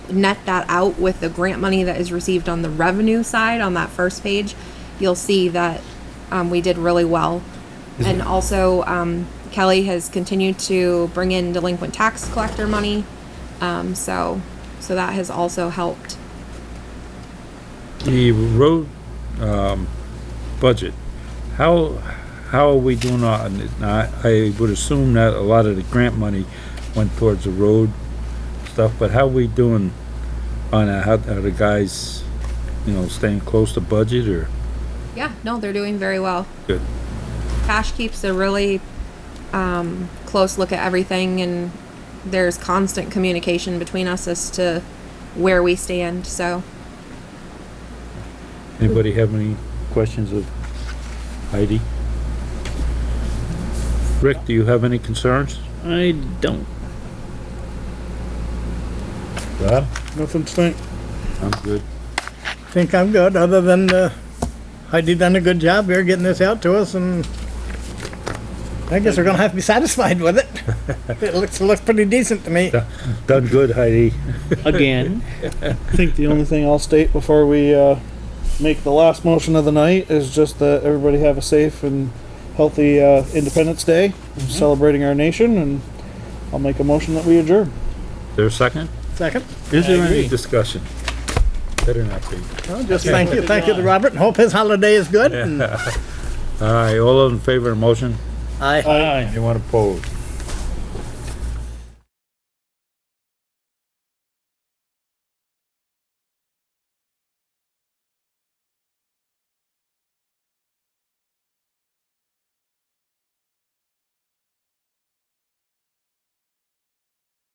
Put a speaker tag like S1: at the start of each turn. S1: net that out with the grant money that is received on the revenue side on that first page, you'll see that um, we did really well. And also, um, Kelly has continued to bring in delinquent tax collector money. Um, so, so that has also helped.
S2: The road, um, budget, how, how are we doing on it? Now, I I would assume that a lot of the grant money went towards the road stuff, but how are we doing on that? How, are the guys, you know, staying close to budget or?
S1: Yeah, no, they're doing very well.
S2: Good.
S1: Cash keeps a really um, close look at everything, and there's constant communication between us as to where we stand. So,
S2: Anybody have any questions of Heidi? Rick, do you have any concerns?
S3: I don't.
S2: Rob?
S4: Nothing to think.
S2: I'm good.
S4: Think I'm good, other than uh, Heidi done a good job here getting this out to us, and I guess we're gonna have to be satisfied with it. It looks, looks pretty decent to me.
S2: Done good, Heidi.
S3: Again,
S5: I think the only thing I'll state before we uh, make the last motion of the night is just that everybody have a safe and healthy uh, Independence Day, celebrating our nation, and I'll make a motion that we adjourn.
S2: There a second?
S4: Second,
S2: Is there any
S3: agree.
S2: discussion? Better not be.
S4: well, just thank you, thank you to Robert, and hope his holiday is good, and
S2: All right, all those in favor of the motion?
S4: I.
S5: Aye.
S2: Anyone opposed?